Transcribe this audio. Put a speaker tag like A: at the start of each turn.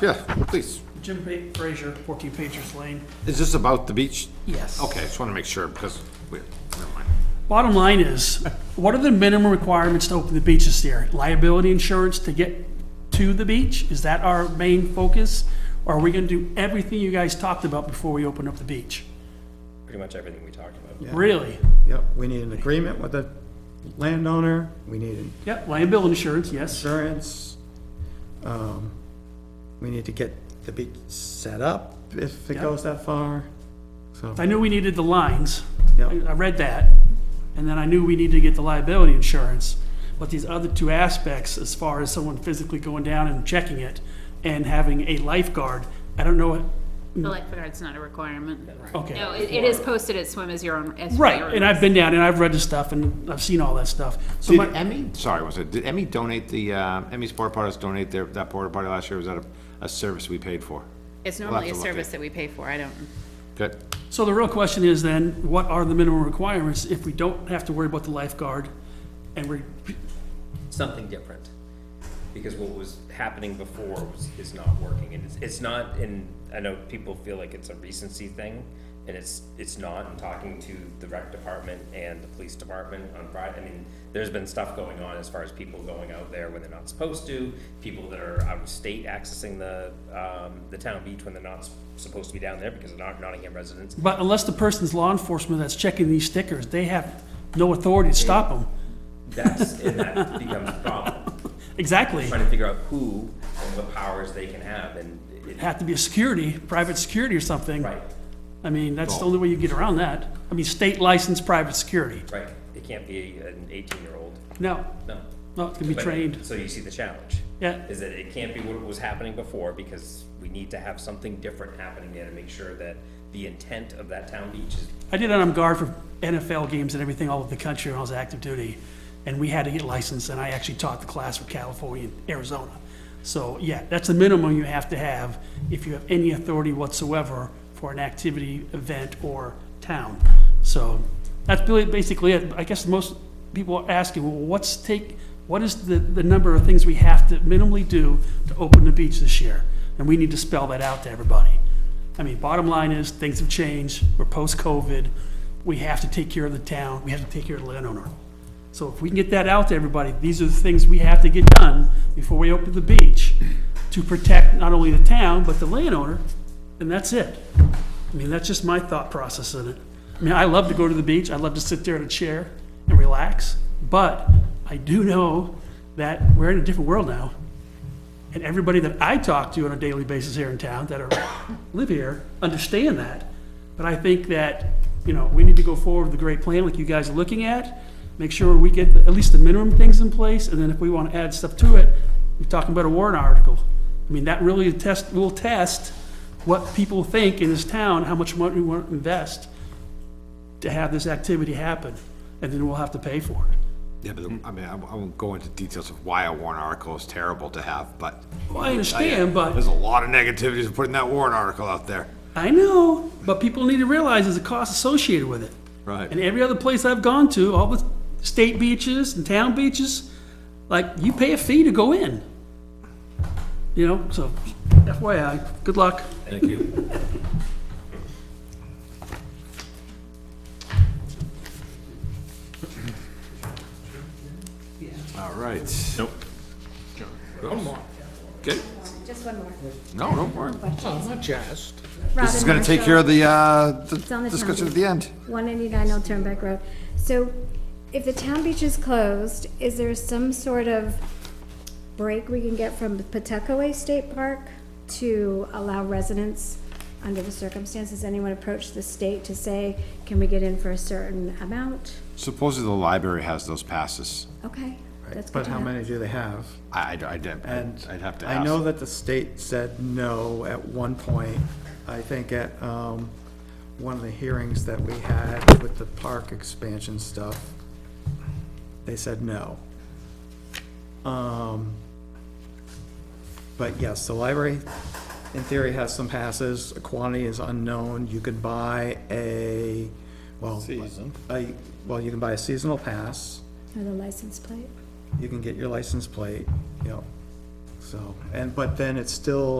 A: yeah, please.
B: Jim Ba- Frazier, 14 Patriots Lane.
A: Is this about the beach?
B: Yes.
A: Okay, just want to make sure because we, never mind.
B: Bottom line is, what are the minimum requirements to open the beaches there? Liability insurance to get to the beach? Is that our main focus? Or are we gonna do everything you guys talked about before we open up the beach?
C: pretty much everything we talked about.
B: Really?
D: Yep, we need an agreement with the landowner, we need an
B: Yep, liability insurance, yes.
D: insurance. um, We need to get the beach set up if it
B: Yep.
D: goes that far, so.
B: I knew we needed the lines.
D: Yep.
B: I I read that. And then I knew we needed to get the liability insurance. But these other two aspects, as far as someone physically going down and checking it and having a lifeguard, I don't know, what-
E: The lifeguard's not a requirement.
B: okay.
E: No, it it is posted at swim as your own. as
B: Right,
E: your
B: and
E: own.
B: I've been down and I've read the stuff and I've seen all that stuff. So
A: Did
B: my,
A: Emmy, sorry, was it, did Emmy donate the, uh, Emmy's porta potties donate their, that porta potty last year? Was that a, a service we paid for?
E: It's
A: We'll have
E: normally
A: to
E: a
A: look
E: service
A: at-
E: that we pay for, I don't,
A: Good.
B: so the real question is then, what are the minimum requirements if we don't have to worry about the lifeguard? And we're,
C: Something different, because what was happening before was, is not working, and it's, it's not, and I know people feel like it's a recency thing, and it's, it's not, I'm talking to the rec department and the police department on Friday, I mean, there's been stuff going on as far as people going out there when they're not supposed to, people that are out of state accessing the, um, the town beach when they're not s- supposed to be down there because they're not Nottingham residents,
B: but unless the person's law enforcement that's checking these stickers, they have no authority to stop them.
C: that's, and that becomes a problem.
B: Exactly.
C: trying to figure out who and what powers they can have and it,
B: Have to be a security, private security or something.
C: right,
B: I mean, that's the only way you get around that. I mean, state licensed private security.
C: right. It can't be an eighteen-year-old,
B: No,
C: no.
B: no, it can be
C: But-
B: trained.
C: So you see the challenge.
B: Yeah.
C: Is that it can't be what was happening before because we need to have something different happening there to make sure that the intent of that town beach is
B: I did it on guard for NFL games and everything all over the country when I was active duty, and we had to get licensed, and I actually taught the class for California and Arizona. So, yeah, that's the minimum you have to have if you have any authority whatsoever for an activity, event, or town. So, that's really basically it. I guess most people are asking, well, what's take, what is the, the number of things we have to minimally do to open the beach this year? And we need to spell that out to everybody. I mean, bottom line is, things have changed, we're post-COVID, we have to take care of the town, we have to take care of the landowner. So if we can get that out to everybody, these are the things we have to get done before we open the beach to protect not only the town, but the landowner, and that's it. I mean, that's just my thought process in it. I mean, I love to go to the beach, I love to sit there in a chair and relax, but I do know that we're in a different world now. And everybody that I talk to on a daily basis here in town that are, live here, understand that. But I think that, you know, we need to go forward with a great plan like you guys are looking at. Make sure we get at least the minimum things in place, and then if we want to add stuff to it, we're talking about a warrant article. I mean, that really test, will test what people think in this town, how much money we want to invest to have this activity happen, and then we'll have to pay for it.
A: Yeah, but I mean, I I won't go into details of why a warrant article is terrible to have, but. uh,
B: Well, I understand, but.
A: There's a lot of negativities of putting that warrant article out there.
B: I know, but people need to realize there's a cost associated with it.
A: Right.
B: And every other place I've gone to, all the state beaches and town beaches, like, you pay a fee to go in. You know, so FYI, good luck.
A: Thank you. All right. Nope. Okay,
F: Just one more.
A: no, don't worry.
F: Robin
A: This is gonna take care of the, uh, the
F: on the
A: discussion at
F: topic.
A: the end.
F: One eighty-nine Old Turnback Road. So if the town beach is closed, is there some sort of break we can get from Pawtuckaway State Park to allow residents, under the circumstances, anyone approach the state to say, can we get in for a certain amount?
A: Supposedly the library has those passes.
F: Okay, that's good
D: But
F: to
D: how
F: know.
D: many do they have?
A: I, I, I'd,
D: And
A: I'd have to
D: I know
A: ask.
D: that the state said no at one point. I think at, um, one of the hearings that we had with the park expansion stuff, they said no. Um, but yes, the library in theory has some passes. The Quantity is unknown. You could buy a, well. Season. A, well, you can buy a seasonal pass
F: Or the license plate?
D: you can get your license plate, you know, so, and, but then it's still